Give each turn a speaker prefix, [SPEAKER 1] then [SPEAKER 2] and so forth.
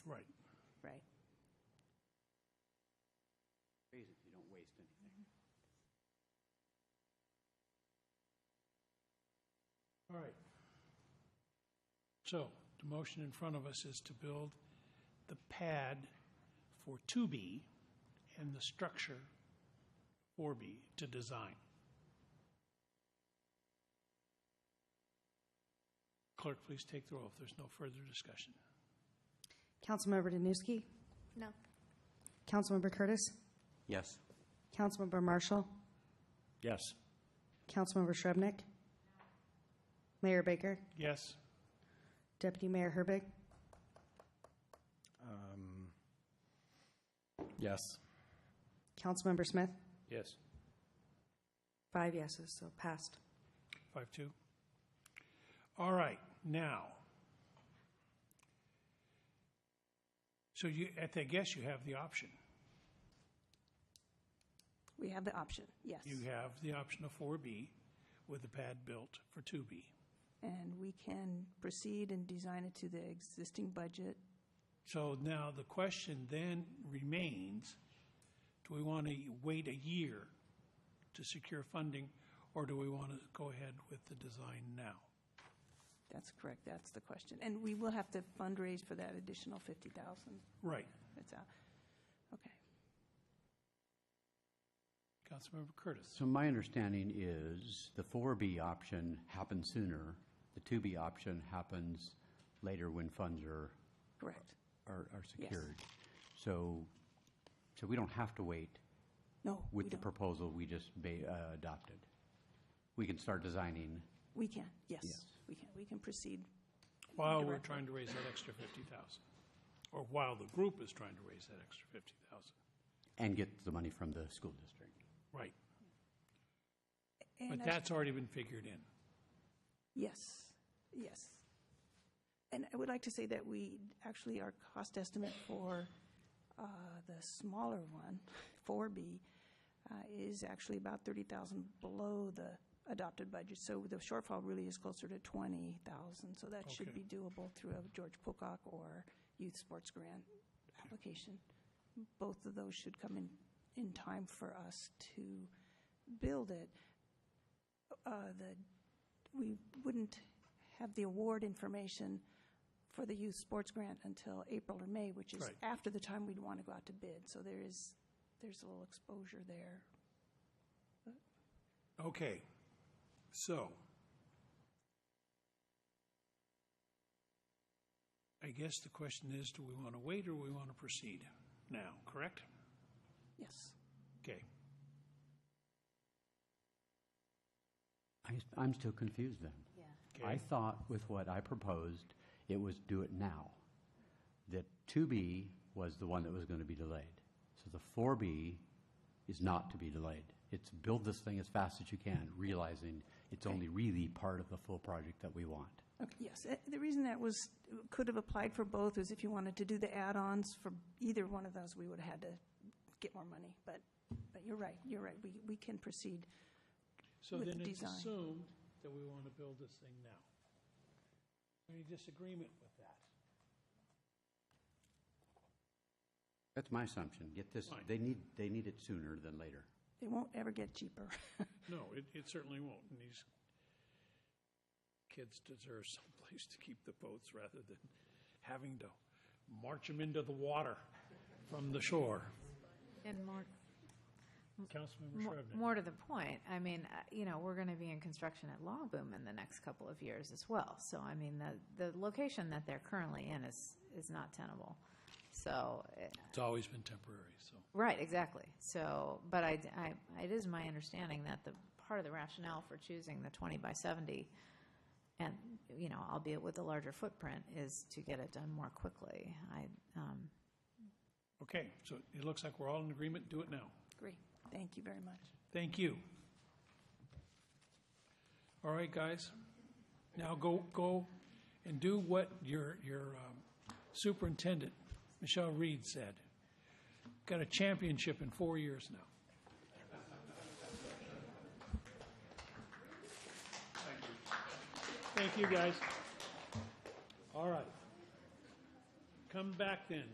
[SPEAKER 1] anything.
[SPEAKER 2] All right. So the motion in front of us is to build the pad for 2B and the structure 4B to design. Clerk, please take the roll if there's no further discussion.
[SPEAKER 3] Councilmember Danuski?
[SPEAKER 4] No.
[SPEAKER 3] Councilmember Curtis?
[SPEAKER 1] Yes.
[SPEAKER 3] Councilmember Marshall?
[SPEAKER 1] Yes.
[SPEAKER 3] Councilmember Shrubnik? Mayor Baker?
[SPEAKER 2] Yes?
[SPEAKER 3] Deputy Mayor Herbig?
[SPEAKER 1] Yes.
[SPEAKER 3] Councilmember Smith?
[SPEAKER 1] Yes.
[SPEAKER 3] Five yeses, so passed.
[SPEAKER 2] Five two. All right, now. So you, at the guess, you have the option.
[SPEAKER 4] We have the option, yes.
[SPEAKER 2] You have the option of four B with the pad built for two B.
[SPEAKER 4] And we can proceed and design it to the existing budget.
[SPEAKER 2] So now the question then remains, do we want to wait a year to secure funding? Or do we want to go ahead with the design now?
[SPEAKER 4] That's correct, that's the question. And we will have to fundraise for that additional 50,000.
[SPEAKER 2] Right,
[SPEAKER 4] That's out. Okay.
[SPEAKER 2] Councilmember Curtis.
[SPEAKER 5] So my understanding is the 4B option happens sooner, the 2B option happens later when funds are,
[SPEAKER 4] Correct.
[SPEAKER 5] are are secured. So, so we don't have to wait
[SPEAKER 4] No, we
[SPEAKER 5] with the
[SPEAKER 4] don't.
[SPEAKER 5] proposal we just ba- uh, adopted. We can start designing.
[SPEAKER 4] We can, yes. We can, we can proceed.
[SPEAKER 2] While we're
[SPEAKER 4] Directly.
[SPEAKER 2] trying to raise that extra fifty thousand, or while the group is trying to raise that extra fifty thousand.
[SPEAKER 5] And get the money from the school district.
[SPEAKER 2] Right,
[SPEAKER 4] And
[SPEAKER 2] but
[SPEAKER 4] I-
[SPEAKER 2] that's already been figured in.
[SPEAKER 4] Yes, yes. And I would like to say that we, actually, our cost estimate for uh, the smaller one, 4B, uh, is actually about 30,000 below the adopted budget. So the shortfall really is closer to 20,000. So that should
[SPEAKER 2] Okay.
[SPEAKER 4] be doable through a George Pocock or Youth Sports Grant application. Both of those should come in, in time for us to build it. Uh, The we wouldn't have the award information for the youth sports grant until April or May, which is
[SPEAKER 2] Right.
[SPEAKER 4] after the time we'd want to go out to bid. So there is, there's a little exposure there.
[SPEAKER 2] Okay, so. I guess the question is, do we want to wait or we want to proceed now, correct?
[SPEAKER 4] Yes.
[SPEAKER 2] Okay,
[SPEAKER 5] I, I'm still confused then. I
[SPEAKER 2] okay,
[SPEAKER 5] thought with what I proposed, it was do it now. That 2B was the one that was going to be delayed. So the 4B is not to be delayed. It's build this thing as fast as you can, realizing it's only really part of the full project that we want.
[SPEAKER 4] Okay, yes. Uh, The reason that was, could have applied for both is if you wanted to do the add-ons for either one of those, we would have had to get more money. But, but you're right, you're right. We, we can proceed.
[SPEAKER 2] so
[SPEAKER 4] with
[SPEAKER 2] then
[SPEAKER 4] the
[SPEAKER 2] it's
[SPEAKER 4] design.
[SPEAKER 2] assumed that we want to build this thing now. Any disagreement with that?
[SPEAKER 5] That's my assumption. Get this,
[SPEAKER 2] Fine.
[SPEAKER 5] they need, they need it sooner than later.
[SPEAKER 4] They won't ever get cheaper.
[SPEAKER 2] No, it, it certainly won't, and these kids deserve someplace to keep the boats rather than having to march them into the water from the shore.
[SPEAKER 6] And more,
[SPEAKER 2] Councilmember
[SPEAKER 6] more-
[SPEAKER 2] Shrevepant.
[SPEAKER 6] more to the point, I mean, uh, you know, we're going to be in construction at Long Boom in the next couple of years as well. So I mean, the, the location that they're currently in is, is not tenable. So, eh,
[SPEAKER 2] It's always been temporary, so.
[SPEAKER 6] right, exactly. So, but I, I, it is my understanding that the, part of the rationale for choosing the 20 by 70 and, you know, albeit with a larger footprint, is to get it done more quickly. I, um,
[SPEAKER 2] Okay, so it looks like we're all in agreement, do it now.
[SPEAKER 4] Great. Thank you very much.
[SPEAKER 2] Thank you. All right, guys, now go, go and do what your, your um, superintendent, Michelle Reed, said. Got a championship in four years now. Thank you, guys. All right. Come back then.